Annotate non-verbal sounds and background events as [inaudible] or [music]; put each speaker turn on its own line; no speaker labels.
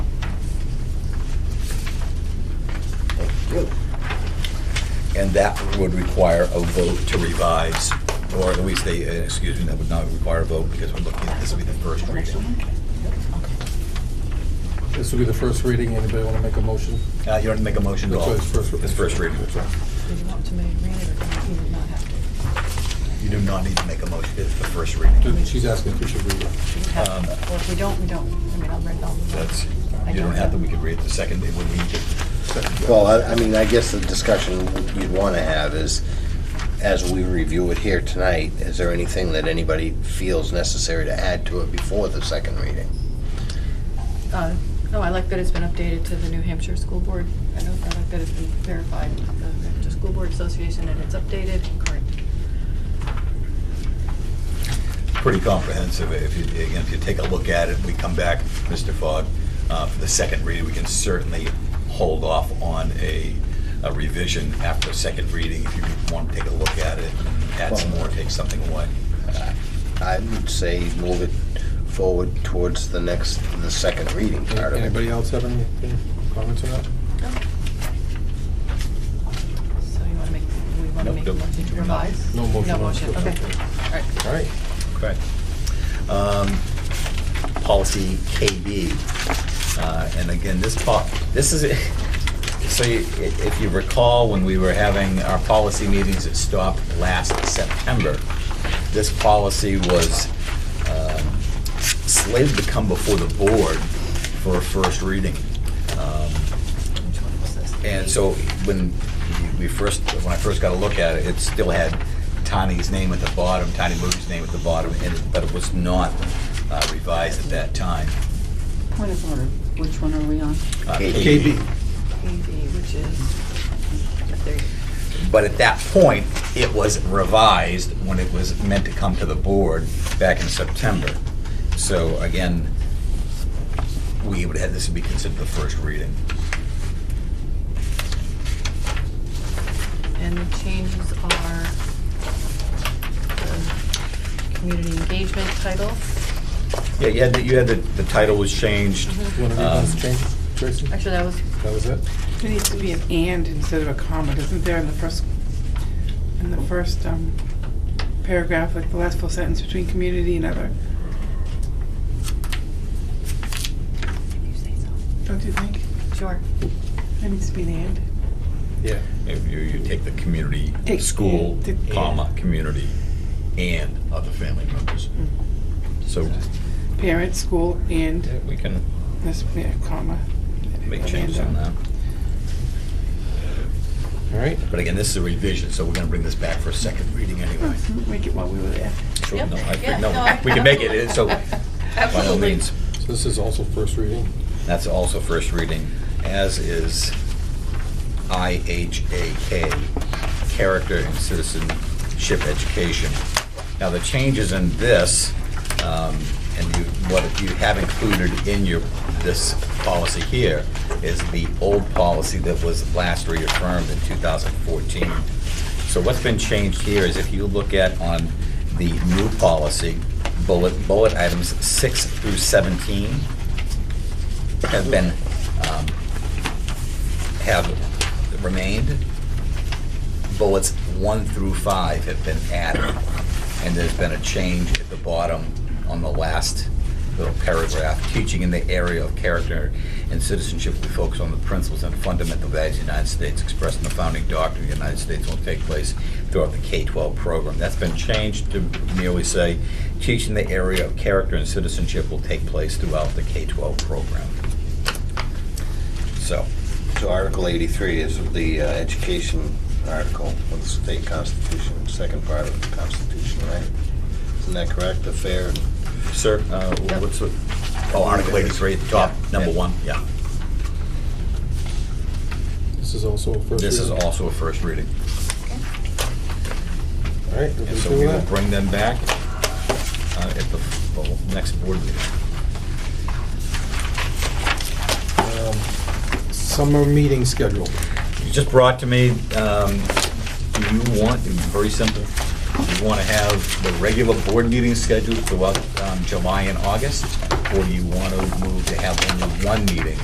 and that would require a vote to revise, or at least they, uh, excuse me, that would not require a vote because we're looking, this will be the first reading.
This will be the first reading. Anybody want to make a motion?
Uh, You don't have to make a motion at all.
That's right, it's first-
It's first reading.
Did you want to make read it or not? You would not have to.
You do not need to make a motion, it's the first reading.
Do- She's asking if we should read it.
You have to. Well, if we don't, we don't. I mean, I'll read it all.
That's,
I
you don't have to, we
know.
could read the second, it would be
Well, I, I mean, I guess the discussion you'd want to have is, as we review it here tonight, is there anything that anybody feels necessary to add to it before the second reading?
Uh, No, I like that it's been updated to the New Hampshire School Board. I know, I like that it's been verified, with the New Hampshire School Board Association, and it's updated, correct.
pretty comprehensive. If you, again, if you take a look at it, we come back, Mr. Fogg, uh, for the second reading, we can certainly hold off on a a revision after the second reading if you want to take a look at it, add some more, take something away.
I would say move it forward towards the next, the second reading part of it.
Anybody else have any any comments on that?
So you want to make, we want to
Nope,
make a
don't.
motion to
You're not.
revise?
No motion
No
on the
motion,
first
okay.
reading.
All right.
All right.
Correct. Um, Policy KB, uh, and again, this po, this is, [laughs] so you- i- if you recall, when we were having our policy meetings, it stopped last September. This policy was um, slated to come before the board for a first reading. Um,
Which one was this?
and so when we first, when I first got a look at it, it still had Tani's name at the bottom, Tani Moody's name at the bottom, and- but it was not uh, revised at that time.
Point of order, which one are we on?
Uh,
KB.
AB, which is, there you go.
But at that point, it was revised when it was meant to come to the board back in September. So again, we would have, this would be considered the first reading.
And the changes are the community engagement title.
Yeah, you had, the- you had, the the title was changed.
You want to read
Um,
those changes, Tracy? That
Actually, that was,
was it?
There needs to be an and instead of a comma, isn't there in the first, in the first um, paragraph, like the last full sentence between community and other? Don't you think?
sure.
There needs to be an and.
Yeah.
If you, you take the community,
Take-
school,
yeah, take-
comma, community, and other family members. So
Parent, school, and,
we can
this, yeah, comma. uh,
make changes on that.
All right.
But again, this is a revision, so we're gonna bring this back for a second reading [laughs] anyway.
[laughs] Make it while we were there.
Sure,
Yep.
no, I think-
Yeah,
no,
no, I-
We can make it, it, so
[laughs]
by all
Absolutely.
means.
So this is also first reading.
That's also first reading, as is IHAK, Character and Citizenship Education. Now, the changes in this, um, and you, what you have included in your, this policy here, is the old policy that was last reaffirmed in 2014. So what's been changed here is if you look at on the new policy, bullet, bullet items 6 through 17, have been, um, have remained. Bullets one through five have been added, and there's been a change at the bottom on the last little paragraph. Teaching in the area of character and citizenship, we focus on the principles and fundamental values of the United States expressed in the founding doctrine of the United States will take place throughout the K-12 program. That's been changed to merely say, teaching the area of character and citizenship will take place throughout the K-12 program. So,
So Article eighty-three is the uh, education article of the state constitution, second part of the constitution, right? Isn't that correct, the fair and
sir, uh, what's, the- oh, Article 83, top, number one, yeah.
This is also a first reading.
This is also a first reading.
All right.
And
everybody
so
good
we
with
will
that?
bring them back uh, at the well, next board meeting.
Um, Summer meeting schedule.
You just brought to me, um, do you want, it's very simple, do you want to have the regular board meeting scheduled throughout um, July and August? Or do you want to move to have only one meeting